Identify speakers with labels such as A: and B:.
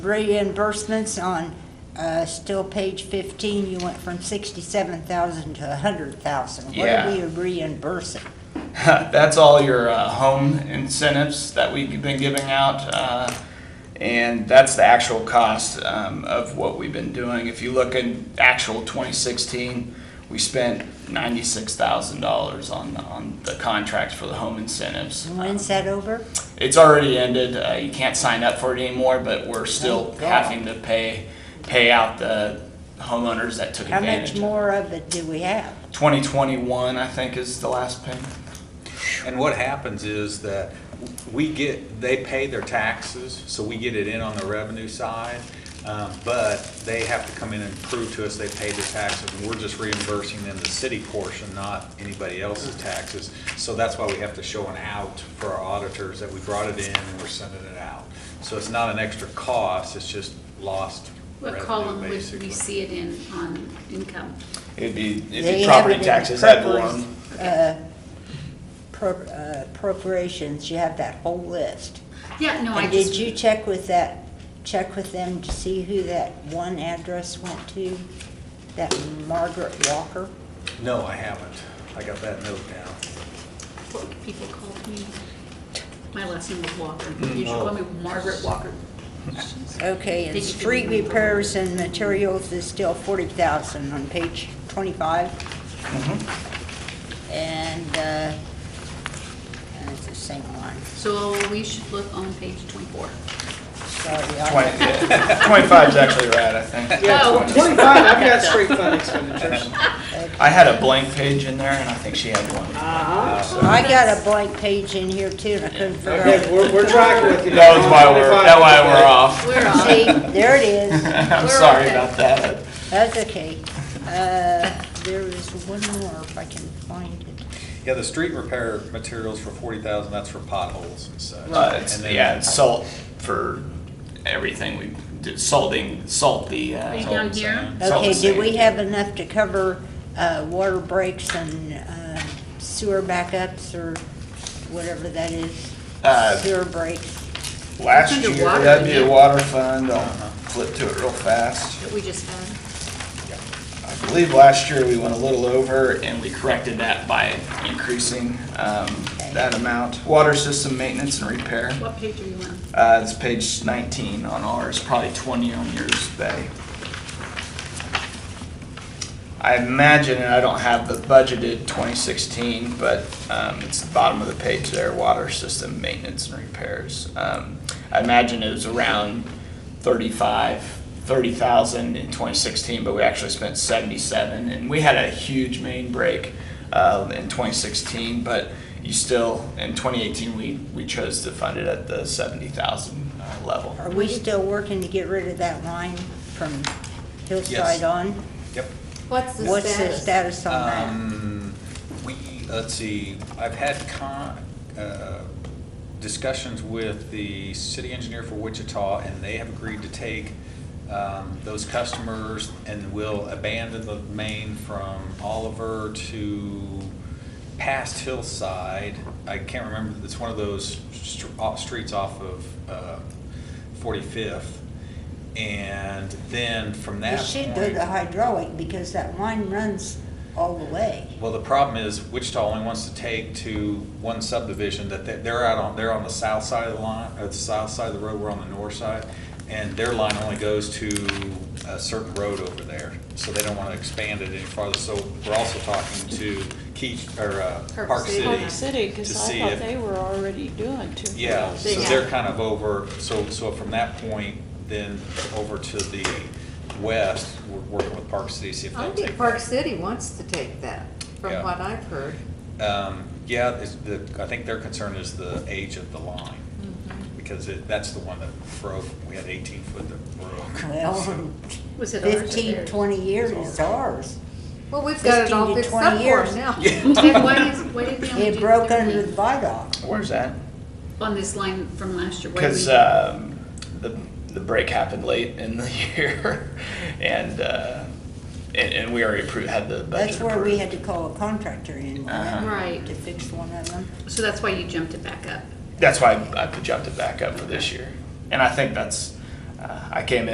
A: reimbursements on, uh, still page 15, you went from 67,000 to 100,000. What
B: Yeah.
A: are we reimbursing?
B: That's all your uh, home incentives that we've been giving out. uh, And that's the actual cost um, of what we've been doing. If you look in actual 2016, we spent $96,000 on, on the contracts for the home incentives. Um,
A: And When's that over?
B: It's already ended. Uh, you can't sign up for it anymore, but we're still
A: Thank God.
B: having to pay, pay out the homeowners that took
A: How
B: advantage.
A: much
B: of it.
A: more of it do we have?
B: 2021, I think, is the last payment.
C: And what happens is that we get, they pay their taxes, so we get it in on the revenue side, um, but they have to come in and prove to us they paid their taxes, and we're just reimbursing them the city portion, not anybody else's taxes. So that's why we have to show an out for our auditors that we brought it in and we're sending it out. So it's not an extra cost, it's just lost
D: What
C: revenue,
D: column would we
C: basically.
D: see it in on income?
B: It'd be, it'd
A: They
B: be
A: have
B: property
A: it in
B: taxes ad
A: appropriate-
B: valorem.
A: uh, pro- uh, Appropriations, you have that whole list.
D: Yeah, no, I
A: And did
D: just,
A: you check with that, check with them to see who that one address went to? That Margaret Walker?
C: No, I haven't. I got that note down.
D: what people called me, my last name was Walker.
C: Mm-hmm.
D: You should call me
C: Oh.
D: Margaret Walker.
A: Okay, and
D: Did you-
A: street repairs and materials is still forty thousand on page twenty-five. And, uh, and it's the same one,
D: So we should look on page 24.
A: sorry.
B: Twenty,
A: I-
B: twenty-five's actually right, I think.
D: Yeah,
B: Yeah, 20.
E: 25, I've got straight fund expenditures.
B: I had a blank page in there, and I think she had one.
D: Ah.
A: I got a blank page in here too, and I couldn't figure
E: Okay,
A: out.
E: we're, we're tracking with you.
B: That was why we're, that why we're off.
D: We're
A: See,
D: on,
A: there it is,
B: I'm
D: We're
B: sorry
D: okay.
B: about that.
A: that's okay. Uh, there is one more if I can find it.
C: Yeah, the street repair materials for forty thousand, that's for potholes and such.
B: Uh, it's,
C: And then-
B: yeah, it's salt for everything we did, salting, salt the,
D: Are
B: uh.
D: you down here?
B: salt
A: Okay,
B: the
A: do we
B: sand.
A: have enough to cover uh, water breaks and uh, sewer backups or whatever that is?
B: Uh,
A: Sewer breaks.
B: Last
D: It's
B: year,
D: under water, Uh-huh.
B: that'd be
D: isn't
B: a
D: it?
B: water fund, I'll flip to it real fast.
D: that we just had.
B: I believe last year we went a little over and we corrected that by increasing, um, that amount. Water system maintenance and repair.
D: What page are you on?
B: Uh, it's page 19 on ours, probably 20 on yours, Betty. I imagine, and I don't have the budgeted 2016, but um, it's the bottom of the page there, water system maintenance and repairs. Um, I imagine it was around 35, 30,000 in 2016, but we actually spent 77. And we had a huge main break uh, in 2016, but you still, in 2018, we, we chose to fund it at the 70,000 uh, level.
A: Are we still working to get rid of that line from Hillside
C: Yes.
A: on?
C: Yep.
F: What's the
A: What's the
F: status?
A: status on
C: Um, we, let's see, I've had con, uh, discussions with the city engineer for Wichita, and they have agreed to take, um, those customers and will abandon the main from Oliver to past Hillside. I can't remember, it's one of those str- off- streets off of, uh, Forty-Fifth. And then from
A: that?
C: that
A: It should
C: point.
A: go to hydraulic because that line runs all the way.
C: Well, the problem is Wichita only wants to take to one subdivision that they- they're out on, they're on the south side of the line, or the south side of the road, we're on the north side. And their line only goes to a certain road over there, so they don't want to expand it any farther. So we're also talking to Keach, or uh,
D: Park
C: Park
D: City.
C: City.
G: Park City,
C: to
G: because I
C: see
G: thought
C: if-
G: they were already doing two.
C: Yeah,
G: miles.
C: so they're kind of over, so, so from that point, then over to the west, we're working with Park City, see if
F: I
C: they'll
F: think
C: take
F: Park
C: that.
F: City wants to take that, from
C: Yeah.
F: what I've heard.
C: Um, yeah, it's the, I think their concern is the age of the line, because it, that's the one that broke, we had eighteen foot that broke.
A: Well,
C: So,
A: in
D: Was it ours or
A: fifteen,
D: theirs?
A: twenty years it's ours.
F: Well, we've got it
A: 15
F: all
A: to
F: fixed
A: 20
F: up for 'em
A: years.
F: now.
D: Ted, why did, why did we only do
A: It broke under the
D: thirty
A: viaduct.
B: Where's that?
D: On this line from last year. why did
B: Because
D: we-
C: uh,
B: um, the the break happened late in the year, and uh, and, and we already approved, had the budget
A: That's where we
B: approved.
A: had to call a contractor in
B: Uh-huh.
D: Right.
A: to fix one of them.
D: So that's why you jumped it back up.
B: That's why I, I jumped it back up for this year, and I think that's Uh, I came in